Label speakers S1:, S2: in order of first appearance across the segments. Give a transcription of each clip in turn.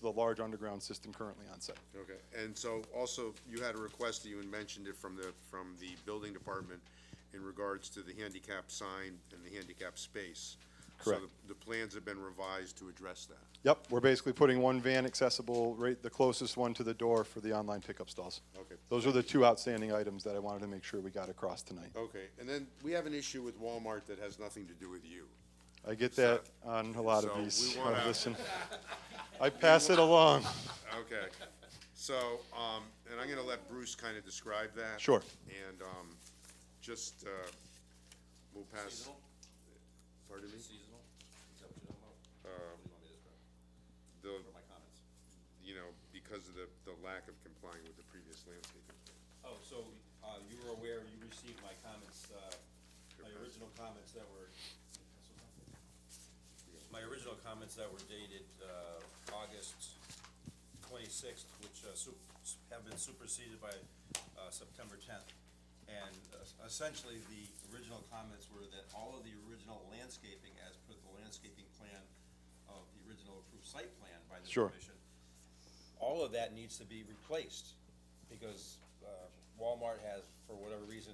S1: the large underground system currently on site.
S2: Okay, and so also, you had a request that you had mentioned it from the, from the building department in regards to the handicap sign and the handicap space. So
S1: Correct.
S2: the, the plans have been revised to address that.
S1: Yep, we're basically putting one van accessible, right, the closest one to the door for the online pickup stalls.
S2: Okay.
S1: Those are the two outstanding items that I wanted to make sure we got across tonight.
S2: Okay, and then we have an issue with Walmart that has nothing to do with you.
S1: I get that on a lot of
S2: So we
S1: these.
S2: wanna-
S1: I listen. I pass it along.
S2: Okay, so, um, and I'm gonna let Bruce kinda describe that.
S1: Sure.
S2: And, um, just, uh, we'll pass. Pardon me?
S3: Seasonal? Is that what you're talking about? What do you want me to describe?
S2: The,
S3: What are my comments?
S2: you know, because of the, the lack of complying with the previous landscaping.
S3: Oh, so, uh, you were aware, you received my comments, uh, my
S2: Your
S3: original comments that were, my original comments that were dated, uh, August twenty-sixth, which, uh, sup- have been superseded by, uh, September tenth. And uh, essentially, the original comments were that all of the original landscaping, as per the landscaping plan of the original approved site plan by the
S1: Sure.
S3: commission, all of that needs to be replaced, because uh, Walmart has, for whatever reason,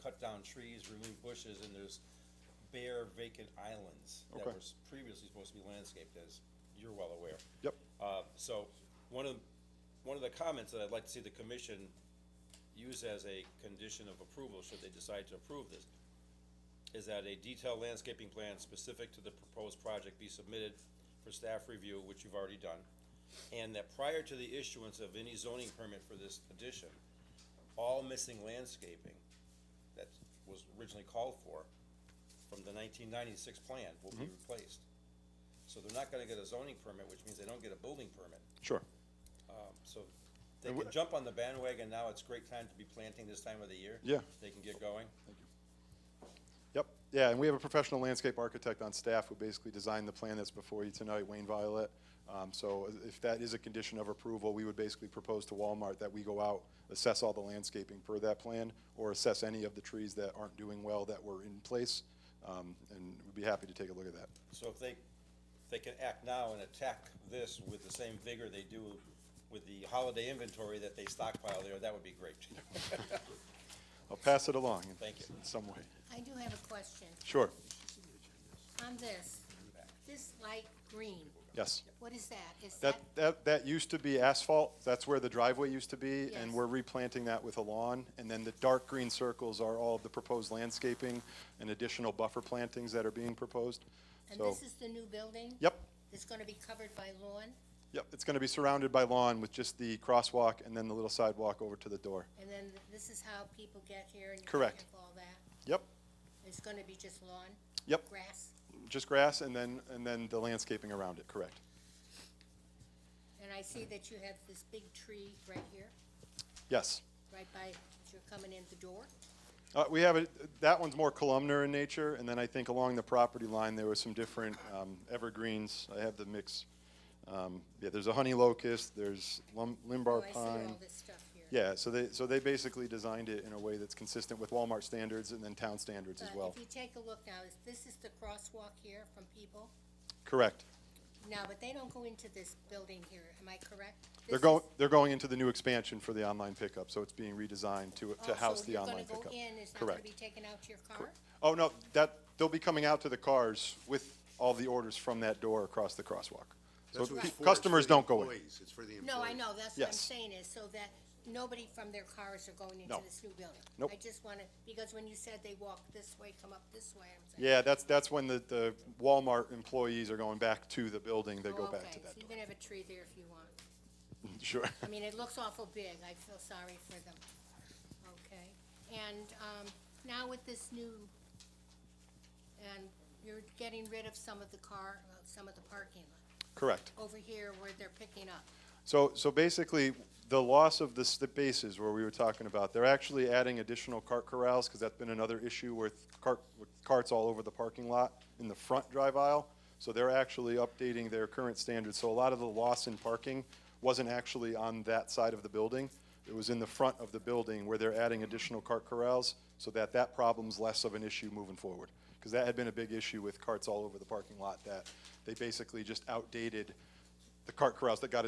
S3: cut down trees, removed bushes, and there's bare vacant islands that
S1: Okay.
S3: were s- previously supposed to be landscaped, as you're well aware.
S1: Yep.
S3: Uh, so, one of, one of the comments that I'd like to see the commission use as a condition of approval, should they decide to approve this, is that a detailed landscaping plan specific to the proposed project be submitted for staff review, which you've already done, and that prior to the issuance of any zoning permit for this addition, all missing landscaping that was originally called for from the nineteen ninety-six plan will be replaced. So they're not gonna get a zoning permit, which means they don't get a building permit.
S1: Sure.
S3: Um, so they
S1: And
S3: can
S1: wh-
S3: jump on the bandwagon now, it's great time to be planting this time of the year.
S1: Yeah.
S3: They can get going.
S1: Yep, yeah, and we have a professional landscape architect on staff who basically designed the plan that's before you tonight, Wayne Violet. Um, so if that is a condition of approval, we would basically propose to Walmart that we go out, assess all the landscaping per that plan, or assess any of the trees that aren't doing well that were in place, um, and we'd be happy to take a look at that.
S3: So if they, if they can act now and attack this with the same vigor they do with the holiday inventory that they stockpile there, that would be great.
S1: I'll pass it along in,
S3: Thank you.
S1: in some way.
S4: I do have a question.
S1: Sure,
S4: On this, this light green,
S1: yes.
S4: what is that? Is that,
S1: That, that, that used to be asphalt, that's where the driveway used to be, and
S4: Yes.
S1: we're replanting that with a lawn. And then the dark green circles are all of the proposed landscaping and additional buffer plantings that are being proposed.
S4: and
S1: So,
S4: this is the new building?
S1: yep,
S4: It's gonna be covered by lawn,
S1: yep, it's gonna be surrounded by lawn with just the crosswalk and then the little sidewalk over to the door.
S4: and then this is how people get here and you
S1: Correct.
S4: have all that?
S1: Yep,
S4: It's gonna be just lawn?
S1: Yep.
S4: Grass?
S1: just grass and then, and then the landscaping around it, correct.
S4: And I see that you have this big tree right here,
S1: Yes.
S4: right by, as you're coming in the door?
S1: Uh, we have a, that one's more columnar in nature, and then I think along the property line, there was some different, um, evergreens. I have the mix. Um, yeah, there's a honey locust, there's lum-
S4: Oh,
S1: limbar
S4: I see
S1: pine.
S4: all this stuff here.
S1: Yeah, so they, so they basically designed it in a way that's consistent with Walmart standards and then town standards as
S4: But
S1: well.
S4: Uh, If you take a look now, is, this is the crosswalk here from people?
S1: Correct.
S4: No, but they don't go into this building here, am I correct?
S1: They're
S4: This
S1: going,
S4: is-
S1: they're going into the new expansion for the online pickup, so it's being redesigned to, to house the online
S4: Oh, so
S1: pickup.
S4: you're gonna go in, it's not gonna
S1: Correct.
S4: be taken out to your car?
S1: Oh, no, that, they'll be coming out to the cars with all the orders from that door across the crosswalk. So
S2: That's what
S1: pe-
S2: it's for, it's
S1: customers
S2: for the
S1: don't go in.
S2: employees, It's for the employees.
S4: No, I know, that's what I'm
S1: Yes.
S4: saying is, so that nobody from their cars are going into
S1: No.
S4: this new building.
S1: Nope.
S4: I just wanna, because when you said they walk this way, come up this way, I'm saying.
S1: Yeah, that's, that's when the, the Walmart employees are going back to the building, they go back to
S4: "Oh, Okay, so
S1: that
S4: you
S1: door.
S4: can have a tree there if you want.
S1: Sure.
S4: I mean, it looks awful big, I feel sorry for them. Okay, and, um, now with this new, and you're getting rid of some of the car, uh, some of the parking lot,
S1: Correct.
S4: over here where they're picking up.
S1: So, so basically, the loss of the spaces where we were talking about, they're actually adding additional cart corrals, because that's been another issue with cart, with carts all over the parking lot in the front drive aisle. So they're actually updating their current standards. So a lot of the loss in parking wasn't actually on that side of the building. It was in the front of the building where they're adding additional cart corrals so that that problem's less of an issue moving forward. Because that had been a big issue with carts all over the parking lot, that they basically just outdated the cart corrals that got